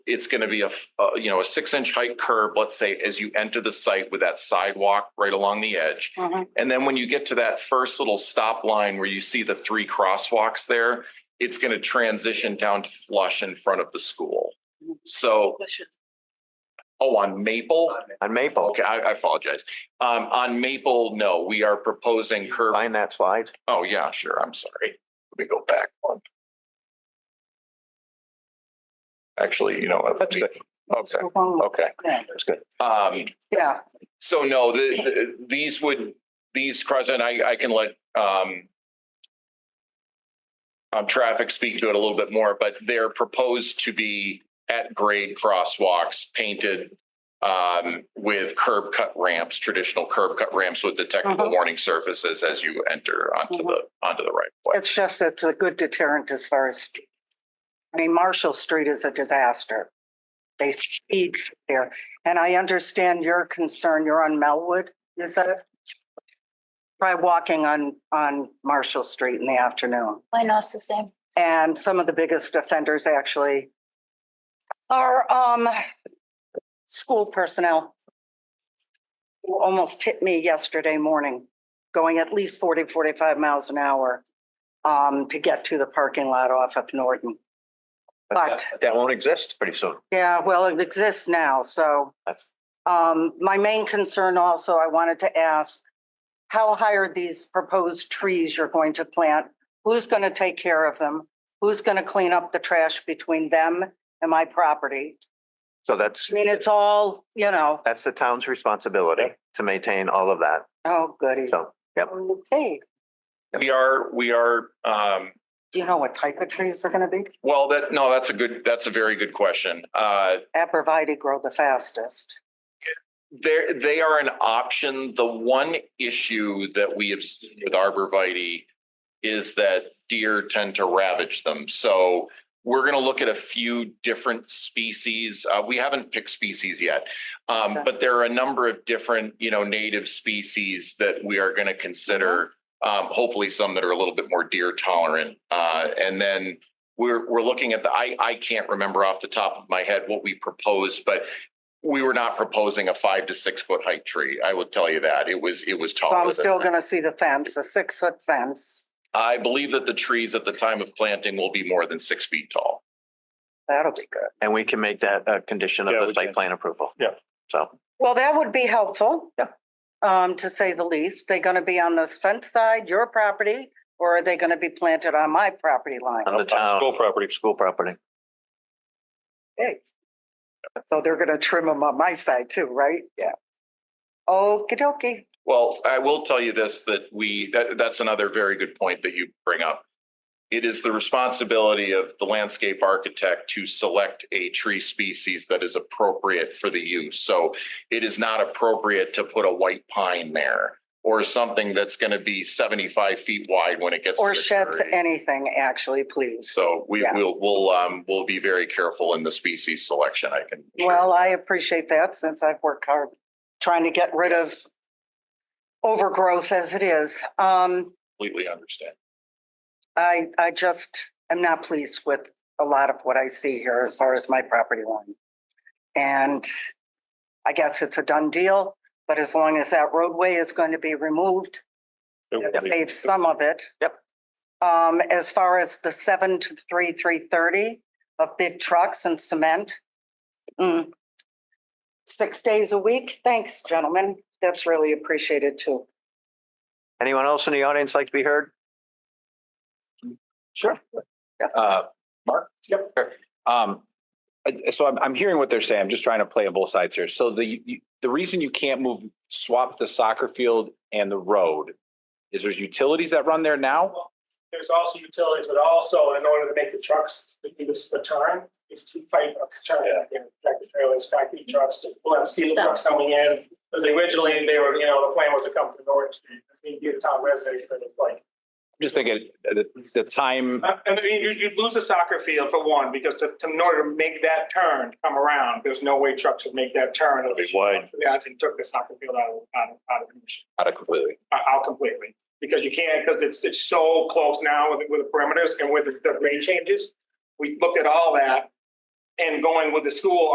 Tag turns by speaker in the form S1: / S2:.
S1: it's gonna be a, f- uh, you know, a six inch height curb, let's say, as you enter the site with that sidewalk right along the edge.
S2: Mhm.
S1: And then when you get to that first little stop line where you see the three crosswalks there, it's gonna transition down to flush in front of the school. So, oh, on Maple?
S3: On Maple,
S1: Okay, I, I apologize. Um, on Maple, no, we are proposing curb.
S3: find that slide.
S1: Oh, yeah, sure. I'm sorry. Let me go back one. Actually, you know. what?
S3: That's good.
S1: Okay,
S2: So long.
S1: okay,
S2: Yeah.
S3: That's good.
S1: um,
S2: Yeah,
S1: so no, the, the- these would, these Crescent, I, I can let, um, um, traffic speak to it a little bit more, but they're proposed to be at grade crosswalks painted um, with curb cut ramps, traditional curb cut ramps with detectable
S2: Mhm.
S1: warning surfaces as you enter onto the, onto the right. of way.
S2: it's just, it's a good deterrent as far as, I mean, Marshall Street is a disaster. They speed there. And I understand your concern. You're on Melwood, you said? Try walking on, on Marshall Street in the afternoon.
S4: I know it's the same.
S2: And some of the biggest offenders actually are, um, school personnel. Who almost hit me yesterday morning, going at least 40, 45 miles an hour, um, to get to the parking lot off of Norton.
S3: But that- that won't exist pretty soon.
S2: Yeah, well, it exists now, so.
S3: That's-
S2: Um, my main concern also, I wanted to ask, how high are these proposed trees you're going to plant? Who's going to take care of them? Who's going to clean up the trash between them and my property?
S3: So that's,
S2: I mean, it's all, you know,
S3: that's the town's responsibility to maintain all of that.
S2: oh goody.
S3: So, yep.
S2: Okay,
S1: We are, we are, um,
S2: do you know what type of trees are going to be?
S1: well, that, no, that's a good, that's a very good question. Uh,
S2: Abrevieties grow the fastest.
S1: They're, they are an option. The one issue that we have seen with arborvitae is that deer tend to ravage them. So we're going to look at a few different species. Uh, we haven't picked species yet. Um,
S2: Okay.
S1: but there are a number of different, you know, native species that we are going to consider.
S2: Mm-hmm.
S1: Um, hopefully some that are a little bit more deer tolerant. Uh, and then we're, we're looking at the, I, I can't remember off the top of my head what we proposed, but we were not proposing a five to six foot height tree. I will tell you that. It was, Oh, it was
S2: So
S1: taller.
S2: I'm
S1: than
S2: still
S1: that.
S2: going to see the fence, a six foot fence.
S1: I believe that the trees at the time of planting will be more than six feet tall.
S2: That'll be good.
S3: And we can make that a condition
S5: Yeah,
S3: of the
S5: we
S3: site
S5: can.
S3: plan approval.
S5: Yeah.
S3: So,
S2: Well, that would be helpful.
S3: Yep.
S2: Um, to say the least, they gonna be on this fence side, your property, or are they gonna be planted on my property line?
S3: on the town,
S5: School property.
S3: school property.
S2: Okay. So they're gonna trim them on my side too, right? Yeah. Okey dokey.
S1: Well, I will tell you this, that we, that, that's another very good point that you bring up. It is the responsibility of the landscape architect to select a tree species that is appropriate for the use. So it is not appropriate to put a white pine there or something that's going to be seventy-five feet wide when it gets. to
S2: Or
S1: maturity.
S2: sheds, anything, actually, please.
S1: So we
S2: Yeah.
S1: will, we'll, um, we'll be very careful in the species selection, I can. assure you.
S2: Well, I appreciate that since I've worked hard trying to get rid of overgrowth as it is. Um,
S1: Completely understand.
S2: I, I just am not pleased with a lot of what I see here as far as my property line. And I guess it's a done deal, but as long as that roadway is going to be removed, it saves some of it.
S3: Yep.
S2: Um, as far as the seven to three, three thirty of big trucks and cement. mm, Six days a week. Thanks, gentlemen. That's really appreciated too.
S3: Anyone else in the audience like to be heard? Sure.
S6: Uh, Mark?
S3: Yep.
S6: Um, I- so I'm, I'm hearing what they're saying. I'm just trying to play on both sides here. So the, you- the reason you can't move, swap the soccer field and the road is there's utilities that run there now?
S5: There's also utilities, but also in order to make the trucks, the, the turn, it's two pipe of turn. you know, Tractor trailers, factory trucks, the well, steel trucks coming in, because originally they were, you know, the plan was to come to Norwich. You get a town resident, but it's like,
S6: I'm just thinking, uh, the, the time,
S5: Uh, And you, you- you'd lose the soccer field for one, because to, to- in order to make that turn, come around, there's no way trucks would make that turn. It'd be wide. Yeah, I think took the soccer field out of, out of, out of commission,
S6: out of completely.
S5: out out completely. Because you can't, because it's, it's so close now with, with the perimeters and with the- the grade changes. We looked at all that, and going with the school